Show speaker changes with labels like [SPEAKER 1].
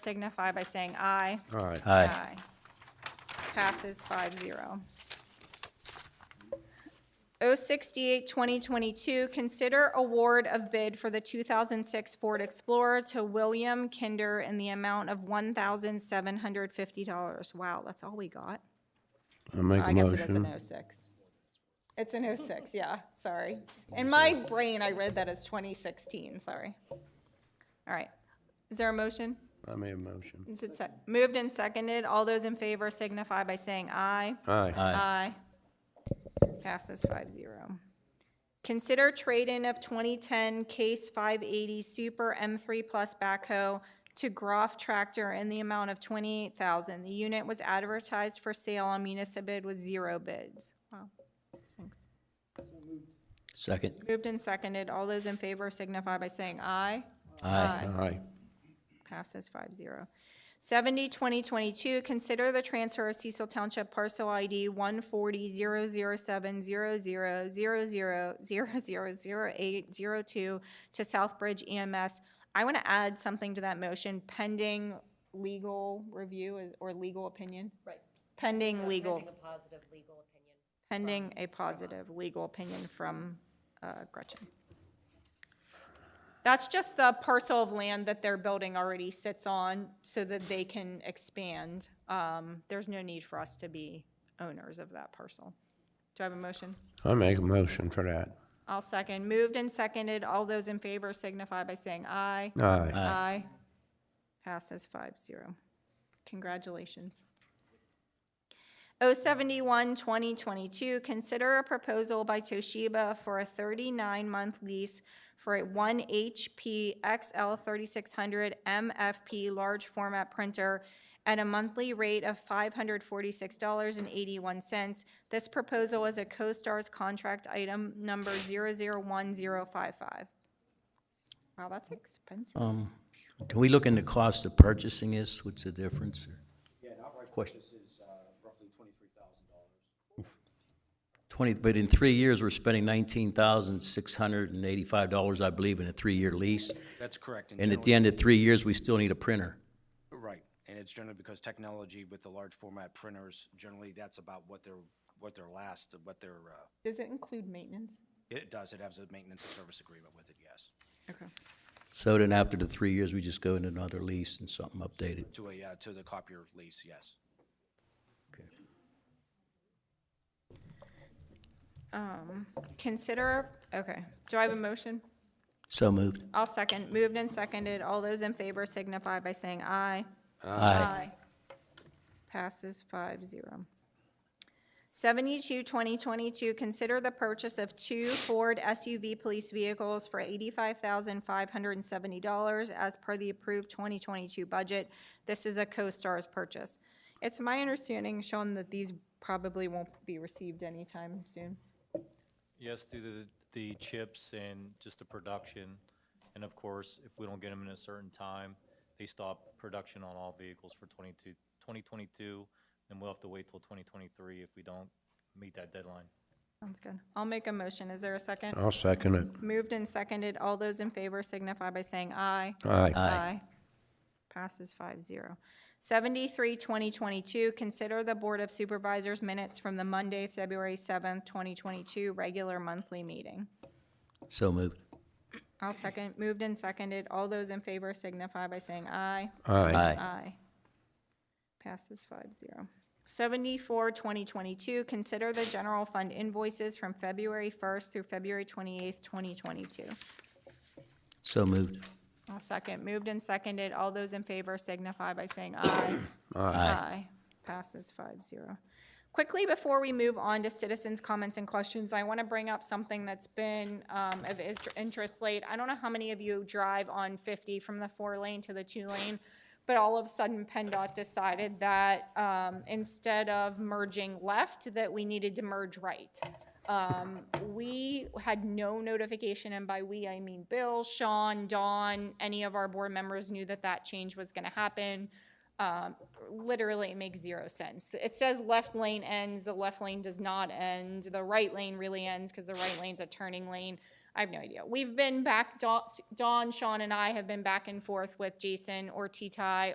[SPEAKER 1] signify by saying aye.
[SPEAKER 2] Aye.
[SPEAKER 3] Aye.
[SPEAKER 1] Passes five zero. O sixty-eight, twenty twenty-two, consider award of bid for the two thousand six Ford Explorer to William Kinder in the amount of one thousand seven hundred fifty dollars. Wow, that's all we got?
[SPEAKER 2] I make
[SPEAKER 1] I
[SPEAKER 2] a
[SPEAKER 1] guess it is
[SPEAKER 2] motion.
[SPEAKER 1] an O six. It's an O six, yeah, sorry. In my brain, I read that as twenty sixteen, sorry. All right. Is there a motion?
[SPEAKER 2] I made a motion.
[SPEAKER 1] Is it sec- Moved and seconded. All those in favor signify by saying aye.
[SPEAKER 2] Aye.
[SPEAKER 3] Aye.
[SPEAKER 1] Passes five zero. Consider trade-in of 2010 Case 580 Super M3 Plus backhoe to Groff Tractor in the amount of 28000 The unit was advertised for sale on Municipid with zero bids. Wow. Thanks.
[SPEAKER 3] Second.
[SPEAKER 1] Moved and seconded. All those in favor signify by saying aye.
[SPEAKER 3] Aye.
[SPEAKER 2] Aye.
[SPEAKER 1] Passes five zero. Seventy, twenty twenty-two, consider the transfer of Cecil Township parcel ID one forty zero zero seven zero zero zero zero zero zero zero eight zero two to Southbridge EMS. I want to add something to that motion pending legal review is- or legal opinion,
[SPEAKER 4] Right.
[SPEAKER 1] pending legal,
[SPEAKER 4] Pending a positive legal opinion.
[SPEAKER 1] pending a positive legal opinion from uh, Gretchen. That's just the parcel of land that their building already sits on so that they can expand. Um, There's no need for us to be owners of that parcel. Do I have a motion?
[SPEAKER 2] I make a motion for that.
[SPEAKER 1] I'll second. Moved and seconded. All those in favor signify by saying aye.
[SPEAKER 2] Aye.
[SPEAKER 1] Aye. Passes five zero. Congratulations. O seventy-one, twenty twenty-two, consider a proposal by Toshiba for a thirty-nine month lease for a one HP XL thirty-six hundred MFP large format printer at a monthly rate of five hundred forty-six dollars and eighty-one cents. This proposal is a CoStarz contract item number zero zero one zero five five. Wow, that's expensive.
[SPEAKER 3] Um, Can we look into cost of purchasing this? What's the difference? Yeah, outright purchase is uh, roughly $23,000. 20, but in three years, we're spending $19,685, I believe, in a three-year lease.
[SPEAKER 5] That's correct.
[SPEAKER 3] And at
[SPEAKER 5] generally-
[SPEAKER 3] the end of three years, we still need a printer.
[SPEAKER 5] Right, and it's generally because technology with the large format printers, generally that's about what their, what their last, what their, uh,
[SPEAKER 1] Does it include maintenance?
[SPEAKER 5] it does, it has a maintenance and service agreement with it, yes,
[SPEAKER 1] Okay.
[SPEAKER 3] So then after the three years, we just go into another lease and something updated.
[SPEAKER 5] to a, uh, to the copier lease, yes.
[SPEAKER 1] Consider, okay, do I have a motion?
[SPEAKER 3] So moved.
[SPEAKER 1] I'll second, moved and seconded, all those in favor signify by saying aye.
[SPEAKER 3] Aye.
[SPEAKER 1] Passes five zero. Seventy-two, twenty twenty-two, consider the purchase of two Ford SUV police vehicles for eighty-five thousand five hundred and seventy dollars as per the approved twenty twenty-two budget. This is a CoStarz purchase. It's my understanding, Sean, that these probably won't be received anytime soon.
[SPEAKER 6] Yes, through the, the chips and just the production. And of course, if we don't get them in a certain time, they stop production on all vehicles for 22, 2022, and we'll have to wait till 2023 if we don't meet that deadline.
[SPEAKER 1] Sounds good. I'll make a motion. Is there a second?
[SPEAKER 2] I'll second it.
[SPEAKER 1] Moved and seconded. All those in favor signify by saying aye.
[SPEAKER 2] Aye.
[SPEAKER 1] Passes five zero. Seventy-three, twenty twenty-two, consider the Board of Supervisors minutes from the Monday, February seventh, twenty twenty-two, regular monthly meeting.
[SPEAKER 3] So moved.
[SPEAKER 1] I'll second. Moved and seconded. All those in favor signify by saying aye.
[SPEAKER 2] Aye.
[SPEAKER 3] Aye.
[SPEAKER 1] Aye. Passes five zero. Seventy-four, twenty twenty-two, consider the general fund invoices from February first through February twenty-eighth, twenty twenty-two.
[SPEAKER 3] So moved.
[SPEAKER 1] I'll second. Moved and seconded. All those in favor signify by saying aye. Passes five zero. Quickly, before we move on to citizens' comments and questions, I want to bring up something that's been um, of is- interest late. I don't know how many of you drive on 50 from the four lane to the two lane, but all of a sudden PennDOT decided that um, instead of merging left, that we needed to merge right. Um, We had no notification, and by we, I mean Bill, Sean, Dawn, any of our board members knew that that change was going to happen um, literally it makes zero sense. It says left lane ends, the left lane does not end, the right lane really ends because the right lane's a turning lane. I have no idea. We've been back, Dawn, Dawn, Sean, and I have been back and forth with Jason or T-Ty